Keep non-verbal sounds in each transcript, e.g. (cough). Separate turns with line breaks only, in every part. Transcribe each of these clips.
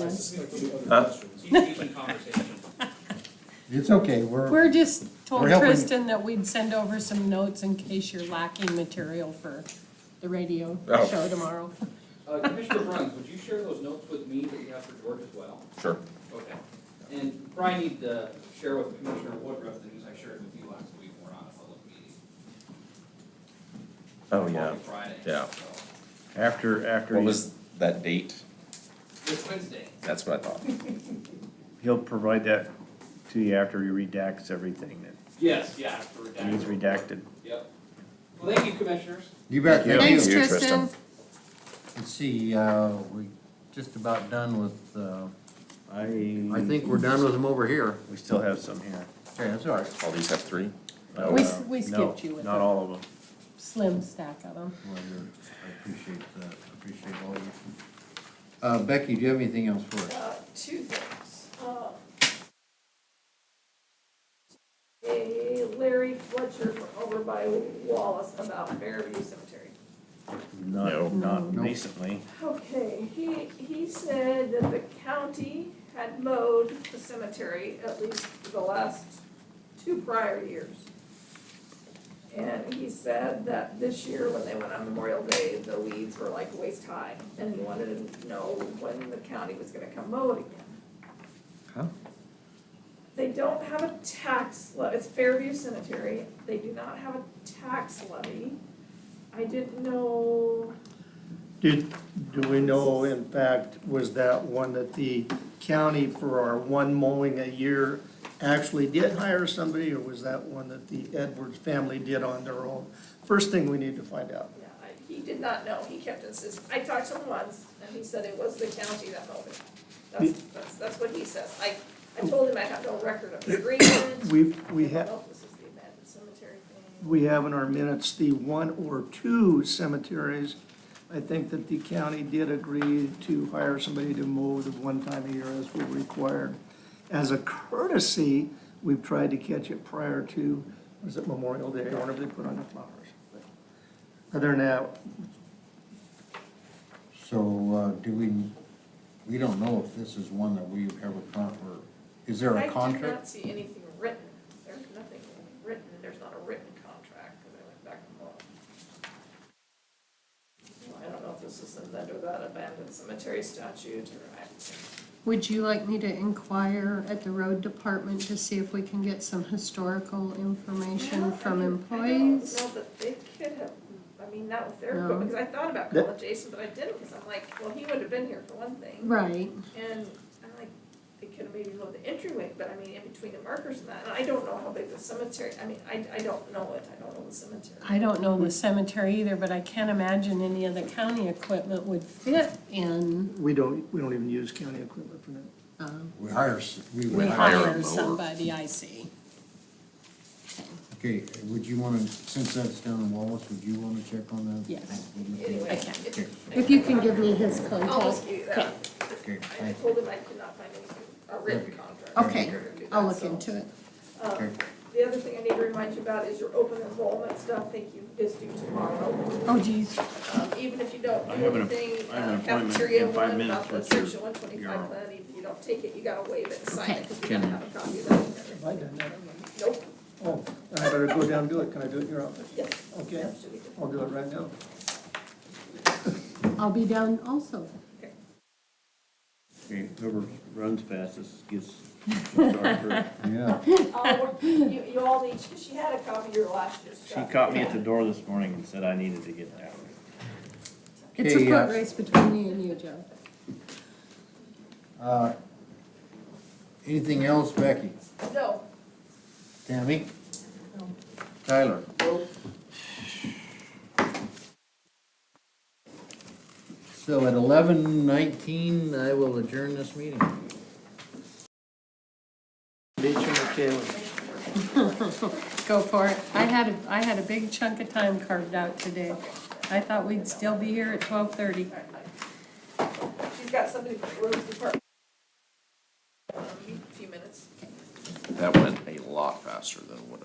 was.
Keep conversation.
It's okay, we're,
We're just told
We're helping.
Tristan that we'd send over some notes in case you're lacking material for the radio
Oh.
show tomorrow.
Uh, Commissioner Bruns, would you share those notes with me that you have for George as well?
Sure.
Okay. And Brian need to share with Commissioner Woodruff the news I shared with you last week, we're on a public meeting.
Oh, yeah.
On Friday.
Yeah.
so.
after, after,
What
he-
was that date?
This Wednesday.
That's what I thought.
he'll provide that to you after he redacts everything
Yes, yeah, for
that needs
redacted.
redacted.
Yep. Well, thank you, Commissioners.
You bet,
Thank
Thanks,
you,
Tristan.
Tristan.
Let's see, uh, we just about done with, uh,
I,
I think we're done with them over here.
we still have some here.
Okay, that's all right.
All these have three?
Oh,
We-
uh,
we
no,
skipped you with
Not
that.
all of them.
Slim stack of them.
Well, you're- I appreciate that, I appreciate all you. Uh, Becky, do you have anything else for us?
Uh, two things. Uh, A Larry Fletcher from over by Wallace about Fairview Cemetery.
No.
Not, not
Nope.
recently.
Okay, he, he said that the county had mowed the cemetery at least for the last two prior years. And he said that this year, when they went on Memorial Day, the weeds were like waist high, and he wanted to know when the county was gonna come mow it again.
Huh?
They don't have a tax levy, it's Fairview Cemetery, they do not have a tax levy. I didn't know,
Did, do we know, in fact, was that one that the county for our one mowing a year actually did hire somebody, or was that one that the Edwards family did on their own? First thing we need to find out.
yeah, I- he did not know, he kept insisting, I talked to him once, and he said it was the county that mowed it. That's, that's, that's what he says, I, I told him I have no record of the agreement,
We, we
I don't
have,
know if this is the abandoned cemetery thing.
we have in our minutes the one or two cemeteries. I think that the county did agree to hire somebody to mow the one time a year as we required. As a courtesy, we've tried to catch it prior to, was it Memorial Day, or whenever they put on the flowers. But Other than that,
So, uh, do we, we don't know if this is one that we ever con, or, is there a
I did
contract?
not see anything written, there's nothing written, there's not a written contract, because I went back and looked. So I don't know if this is under that abandoned cemetery statute, or I,
Would you like me to inquire at the road department to see if we can get some historical information
Well,
from
I mean, I
employees?
don't know that they could have, I mean, not with their,
No.
equipment, because I thought about
That-
calling Jason, but I didn't, because I'm like, well, he would have been here for one thing.
Right,
And I'm like, they could have maybe moved the entryway, but I mean, in between the markers and that, and I don't know how big the cemetery, I mean, I, I don't know it, I don't know the cemetery.
I don't know the cemetery either, but I can't imagine any of the county equipment would fit in,
we don't, we don't even use county equipment for that.
um,
We hire, s- we
we
would
hire
hire.
a
hire
mower.
somebody, I see.
Okay, would you wanna, since that's down in Wallace, would you wanna check on that?
Yes.
Anyway,
Okay.
it-
Okay,
If you can give me his contact.
I'll just give you that.
okay,
I
thank you.
told him I could not find anything, a written contract.
Okay,
or do that,
I'll look
so.
into it.
Um,
Okay.
The other thing I need to remind you about is your open enrollment stuff, thank you, is due tomorrow.
Oh geez,
Um, Even if you don't
I
do
have an-
anything,
I have an
uh,
appointment
cafeteria
in five
one
minutes
about the
with your-
section one
your-
twenty-five plan, even if you don't take it, you gotta waive it and sign
Okay.
it, because we don't have a copy of that. and everything.
Have I done that?
Nope,
Oh, I better go down and do it. Can I do it in your office?
yes,
Okay,
that should be good.
I'll do it right now.
I'll be down also.
Okay, Whoever runs
(laughs)
fastest gets. started first.
Yeah,
Uh, You, you all need, she had a copy of your last year's
She
stuff.
caught me at the door this morning and said I needed to get down.
It's a
Okay,
foot
uh,
race between me and you, Joe.
uh, anything else, Becky?
No,
Tammy? Tyler? So at eleven nineteen, I will adjourn this meeting.
Beach on the tail.
Go for it. I had, a I had a big chunk of time carved out today. I thought we'd still be here at twelve thirty.
she's got somebody from the roads department. Um, A few minutes.
That went a lot faster than what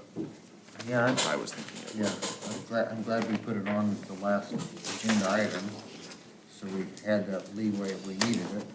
Yeah, I'm-
I was thinking
yeah, I'm glad, I'm glad we put it on the last agenda item, so we had that leeway if we needed it.